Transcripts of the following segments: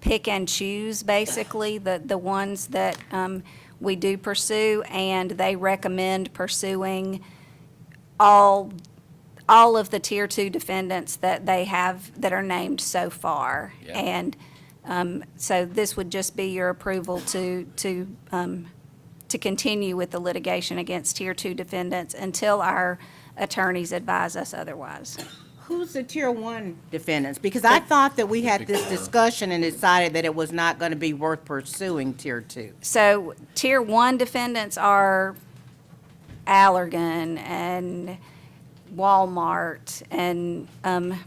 pick and choose, basically, the, the ones that um, we do pursue, and they recommend pursuing all, all of the Tier 2 defendants that they have, that are named so far. Yeah. And um, so this would just be your approval to, to, um, to continue with the litigation against Tier 2 defendants until our attorneys advise us otherwise. Who's the tier one defendants? Because I thought that we had this discussion and decided that it was not going to be worth pursuing tier two. So tier one defendants are Allergan and Walmart and um,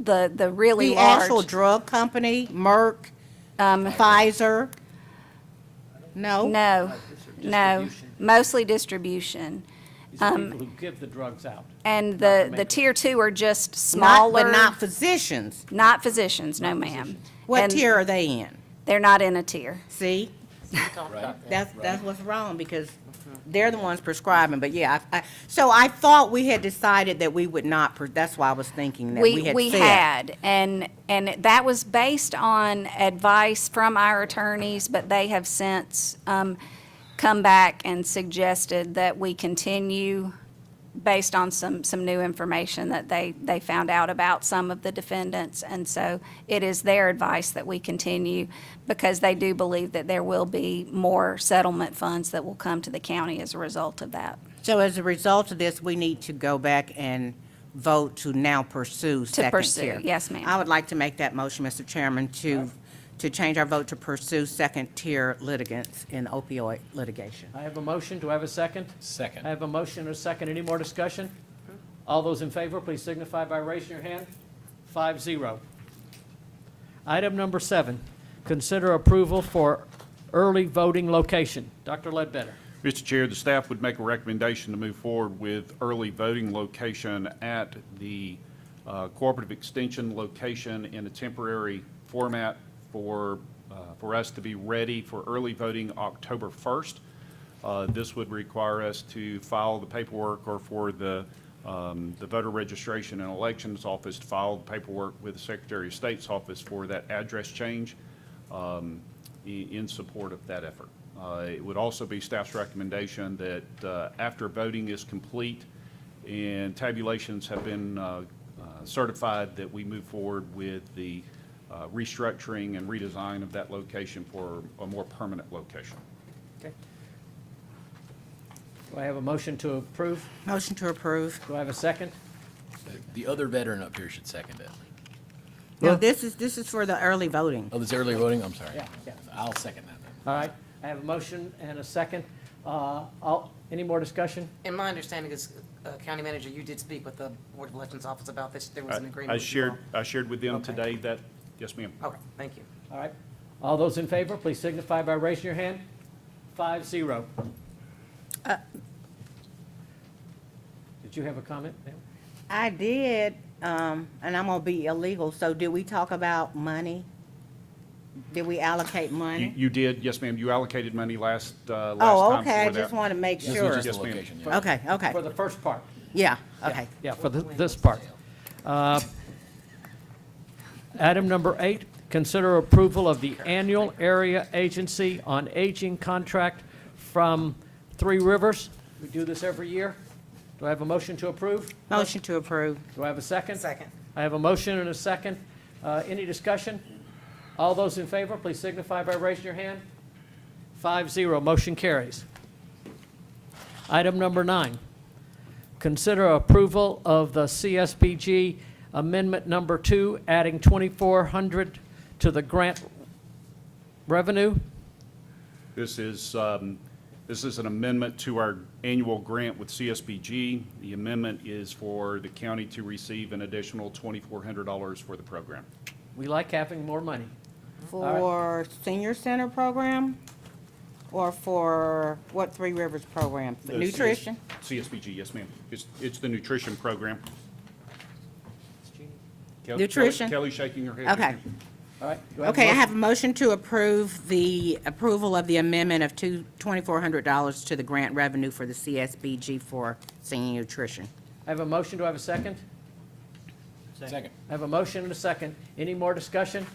the the really The actual large. drug company, Merck, Pfizer? No? Um, No, no, Distribution. mostly distribution. These are people who give the drugs out. And the, the Not- tier two are just Not, but smaller, not physicians. not physicians, no ma'am. What And tier are they in? They're not in a tier. See? Right. That's, that's what's wrong, because they're the ones prescribing, but yeah, I, I- so I thought we had decided that we would not, pr- that's why I was thinking that we had said. We had, and, and that was based on advice from our attorneys, but they have since um, come back and suggested that we continue based on some, some new information that they, they found out about some of the defendants. And so it is their advice that we continue because they do believe that there will be more settlement funds that will come to the county as a result of that. So as a result of this, we need to go back and vote to now pursue second pursue, tier. yes, ma'am. I would like to make that motion, Mr. Chairman, to, to change our vote to pursue second tier litigants in opioid litigation. I have a motion. Do I have a second? I Second. have a motion and a second. Any more discussion? All those in favor, please signify by raising your hand. Five zero. Item number seven, consider approval for early voting location. Dr. Ledbetter. Mr. Chair, the staff would make a recommendation to move forward with early voting location at the uh, cooperative extension location in a temporary format for, uh, for us to be ready for early voting October 1st. Uh, This would require us to file the paperwork or for the, um, the voter registration and elections office to file the paperwork with the Secretary of State's office for that address change um, i- in support of that effort. Uh, It would also be staff's recommendation that uh, after voting is complete and tabulations have been uh, uh, certified, that we move forward with the uh, restructuring and redesign of that location for a more permanent location. Okay. Do I have a motion to approve? Motion to approve. Do I have a second? The other veteran up here should second it. Now, this is, this is for the early voting. Oh, this early voting, I'm sorry. Yeah, yeah. I'll second that then. All right. I have a motion and a second. Uh, all- Any more discussion? And my understanding is, uh, County Manager, you did speak with the Board of Elections Office about this. There was I an agreement. I with you shared, all. I shared with them Okay. Oh, today that, yes, ma'am. Okay, thank you. All right. All those in favor, please signify by raising your hand. Five zero. Did you have a comment? ma'am? I did, um, and I'm gonna be illegal, so did we talk about money? Did we allocate You, money? you did, yes, ma'am. You allocated money last, uh, last time for Oh, that. okay, I just wanna make This was sure. just Yes, the ma'am. location, yeah. Okay, okay, For the first part. yeah, okay. Yeah, for the- this part. Uh, Item number eight, consider approval of the annual area agency on aging contract from Three Rivers. We do this every year. Do I have a motion to approve? Motion to approve. Do I have a second? Second. I have a motion and a second. Uh, Any discussion? All those in favor, please signify by raising your hand. Five zero, motion carries. Item number nine, consider approval of the CSBG Amendment Number Two, adding 2,400 to the grant revenue. This is, um, this is an amendment to our annual grant with CSBG. The amendment is for the county to receive an additional $2,400 for the program. We like having more money. right. For senior center program or for what Three Rivers program? The CS Nutrition? CSBG, yes, ma'am. It's, it's the nutrition program. Kel- Kelly- Nutrition? Kelly's shaking her head. yes, Okay. ma'am. All right. do Okay, I motion? have a motion to approve the approval of the amendment of two, twenty-four hundred dollars to the grant revenue for the CSBG for senior nutrition. I have a motion, do I have a second? Second. I have a motion and a second. Any more discussion?